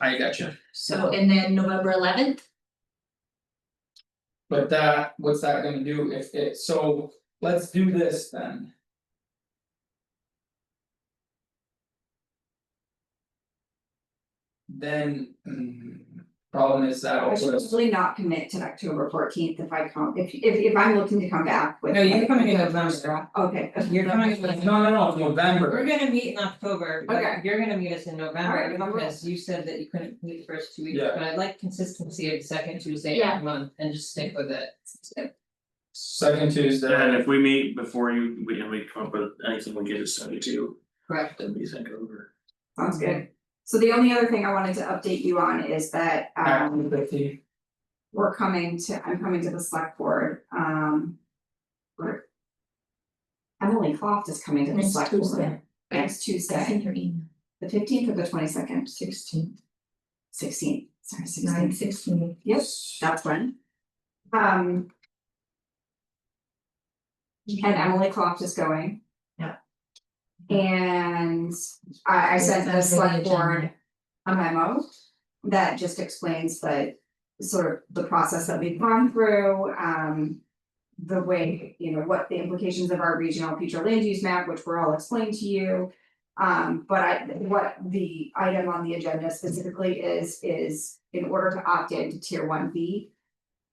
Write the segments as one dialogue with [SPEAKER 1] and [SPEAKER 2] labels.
[SPEAKER 1] I gotcha,
[SPEAKER 2] So and then November eleventh,
[SPEAKER 1] but that, what's that gonna do if it, so let's do this then. Then, mm, problem is that
[SPEAKER 3] I should
[SPEAKER 1] also,
[SPEAKER 3] probably not commit to October fourteenth if I come, if if if I'm looking to come back with.
[SPEAKER 4] No, you're
[SPEAKER 3] like-
[SPEAKER 4] coming in November,
[SPEAKER 3] Okay,
[SPEAKER 4] you're coming in November.
[SPEAKER 1] no, no, no, November,
[SPEAKER 4] We're gonna meet in October,
[SPEAKER 3] Okay.
[SPEAKER 4] but you're gonna meet us in
[SPEAKER 3] Alright,
[SPEAKER 4] November,
[SPEAKER 3] November.
[SPEAKER 4] because you said that you couldn't meet the first two weeks,
[SPEAKER 1] Yeah.
[SPEAKER 4] but I like consistency of the second Tuesday
[SPEAKER 2] Yeah.
[SPEAKER 4] of the month and just stick with it.
[SPEAKER 1] second
[SPEAKER 5] And
[SPEAKER 1] Tuesday,
[SPEAKER 5] if we meet before you, we and we come up with anything, we get it started too,
[SPEAKER 4] Correct.
[SPEAKER 5] then we send it over.
[SPEAKER 3] sounds good. So the only other thing I wanted to update you on is that
[SPEAKER 1] after
[SPEAKER 3] um
[SPEAKER 1] fifty,
[SPEAKER 3] we're coming to, I'm coming to the select board, um. we're- Emily Cloft is coming to the
[SPEAKER 2] Next
[SPEAKER 3] select board.
[SPEAKER 2] Tuesday.
[SPEAKER 3] Next
[SPEAKER 2] I sent
[SPEAKER 3] Tuesday,
[SPEAKER 2] your email,
[SPEAKER 3] the fifteenth or the twenty second,
[SPEAKER 2] sixteen,
[SPEAKER 3] sixteenth, sorry,
[SPEAKER 2] nine
[SPEAKER 3] sixteenth,
[SPEAKER 2] sixteen.
[SPEAKER 3] yes, that's when. Um, and Emily Cloft is going.
[SPEAKER 2] Yeah.
[SPEAKER 3] And I I sent the
[SPEAKER 2] That's on the
[SPEAKER 3] select board
[SPEAKER 2] agenda.
[SPEAKER 3] a memo that just explains the sort of the process that we've gone through, um. The way, you know, what the implications of our regional future land use map, which were all explained to you. Um, but I, what the item on the agenda specifically is, is in order to opt into tier one B.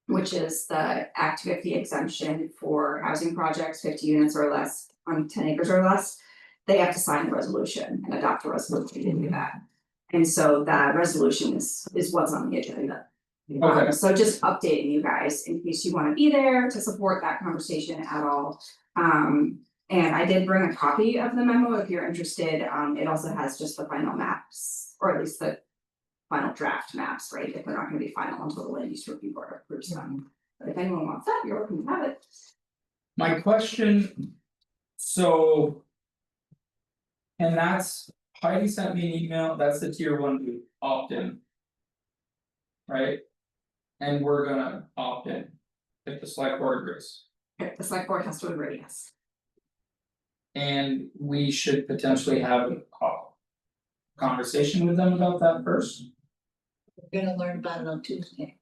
[SPEAKER 3] Which is the Act fifty exemption for housing projects fifty units or less on ten acres or less. They have to sign the resolution and adopt a resolution to do that. And so that resolution is is what's on the agenda.
[SPEAKER 1] Okay.
[SPEAKER 3] Um, So just updating you guys in case you wanna be there to support that conversation at all. Um, and I did bring a copy of the memo if you're interested, um, it also has just the final maps, or at least the. Final draft maps, right, if they're not gonna be final until the land use review board approves
[SPEAKER 1] Mm-hmm.
[SPEAKER 3] them, but if anyone wants that, you're welcome to have it.
[SPEAKER 1] my question, so. And that's Heidi sent me an email, that's the tier one we opt-in. Right? And we're gonna opt-in, if the select board agrees,
[SPEAKER 3] Okay, The select board has to agree, yes,
[SPEAKER 1] and we should potentially have a call. Conversation with them about that first,
[SPEAKER 2] We're gonna learn about it on Tuesday.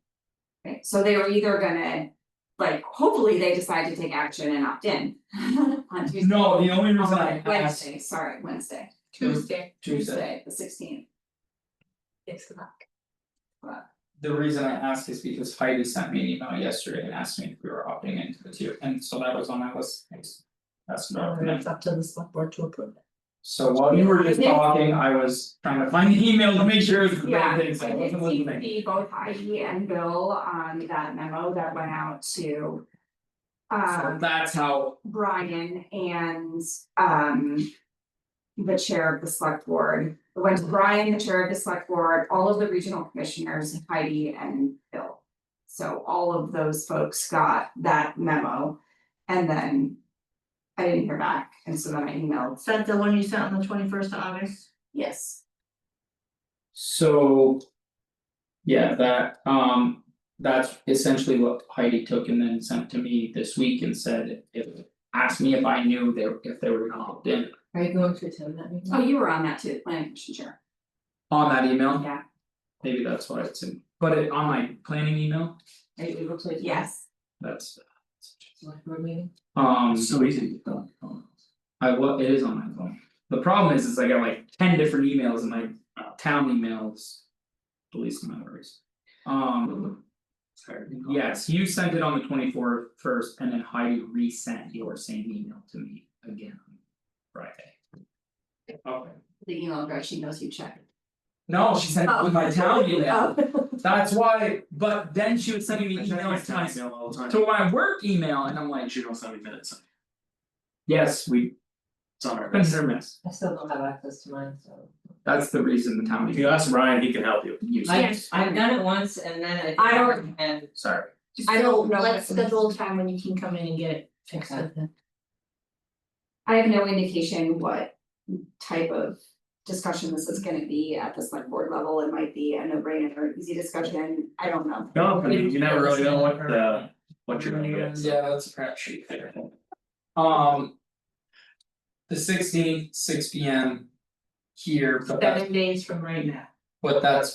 [SPEAKER 3] right, so they were either gonna. Like, hopefully they decide to take action and opt in on Tuesday.
[SPEAKER 1] no, the only reason I
[SPEAKER 3] On
[SPEAKER 1] asked
[SPEAKER 3] Wednesday, sorry, Wednesday,
[SPEAKER 2] Tuesday,
[SPEAKER 1] Tuesday,
[SPEAKER 3] Tuesday, the sixteenth,
[SPEAKER 2] six o'clock.
[SPEAKER 1] the reason I asked is because Heidi sent me an email yesterday and asked me if we were opting into the tier, and so that was on my list. Thanks. That's not,
[SPEAKER 2] And it's up to the select board to approve it.
[SPEAKER 1] So while you were just
[SPEAKER 3] Mm-hmm. Yeah.
[SPEAKER 1] talking, I was trying to find the email to make sure it's the right
[SPEAKER 3] yeah, I
[SPEAKER 1] thing,
[SPEAKER 3] did
[SPEAKER 1] so I wasn't listening.
[SPEAKER 3] see both Heidi and Bill on that memo that went out to.
[SPEAKER 1] So
[SPEAKER 3] Um,
[SPEAKER 1] that's how,
[SPEAKER 3] Brian and um. The chair of the select board, it went to Brian, the chair of the select board, all of the regional commissioners, Heidi and Bill. So all of those folks got that memo and then. I didn't hear back, and so then I emailed,
[SPEAKER 6] Is that the one you sent on the twenty first of August?
[SPEAKER 3] yes,
[SPEAKER 1] so. Yeah, that um that's essentially what Heidi took and then sent to me this week and said if asked me if I knew they if they were gonna opt in
[SPEAKER 4] Are you going to attend that meeting?
[SPEAKER 3] Oh, you were on that too, the planning commission chair.
[SPEAKER 1] on that email.
[SPEAKER 3] Yeah.
[SPEAKER 1] Maybe that's why it's in, but it on my planning email,
[SPEAKER 4] Are you able to attend?
[SPEAKER 3] Yes,
[SPEAKER 1] that's
[SPEAKER 4] Select board meeting?
[SPEAKER 1] um
[SPEAKER 5] So easy to get done. um,
[SPEAKER 1] I wa- it is on my phone. The problem is, is I got like ten different emails and my uh, town emails. The least amount of worries. Um,
[SPEAKER 5] sorry.
[SPEAKER 1] yes, you sent it on the twenty fourth first and then Heidi resent your same email to me again on Friday. Okay.
[SPEAKER 3] the email address, she knows you checked.
[SPEAKER 1] No, she sent it with my town email,
[SPEAKER 3] Oh,
[SPEAKER 1] that's why, but then she was sending me
[SPEAKER 5] I check my
[SPEAKER 1] emails to
[SPEAKER 5] town
[SPEAKER 1] my,
[SPEAKER 5] email all the time.
[SPEAKER 1] to my work email and I'm
[SPEAKER 5] I
[SPEAKER 1] like,
[SPEAKER 5] should also have minutes,
[SPEAKER 1] yes, we,
[SPEAKER 5] it's on our.
[SPEAKER 1] consider miss.
[SPEAKER 4] I still don't have access to mine, so.
[SPEAKER 1] That's the reason the town
[SPEAKER 5] If you
[SPEAKER 1] email.
[SPEAKER 5] ask Ryan, he can help you.
[SPEAKER 4] I
[SPEAKER 3] Yes.
[SPEAKER 4] I've done it once and then I. think
[SPEAKER 3] I don't-
[SPEAKER 4] And
[SPEAKER 1] Sorry,
[SPEAKER 3] I don't know
[SPEAKER 2] So
[SPEAKER 3] what
[SPEAKER 2] let's
[SPEAKER 3] it means.
[SPEAKER 2] schedule a time when you can come in and get it fixed up then.
[SPEAKER 3] I have no indication what type of discussion this is gonna be at the select board level, it might be a no brainer or easy discussion, I don't know.
[SPEAKER 5] No, I mean, you never really know what the, what you're gonna get.
[SPEAKER 1] yeah, that's a crap sheet there. Um. The sixteenth, six P M. Here, but that's,
[SPEAKER 6] Seven days from right now.
[SPEAKER 1] but that's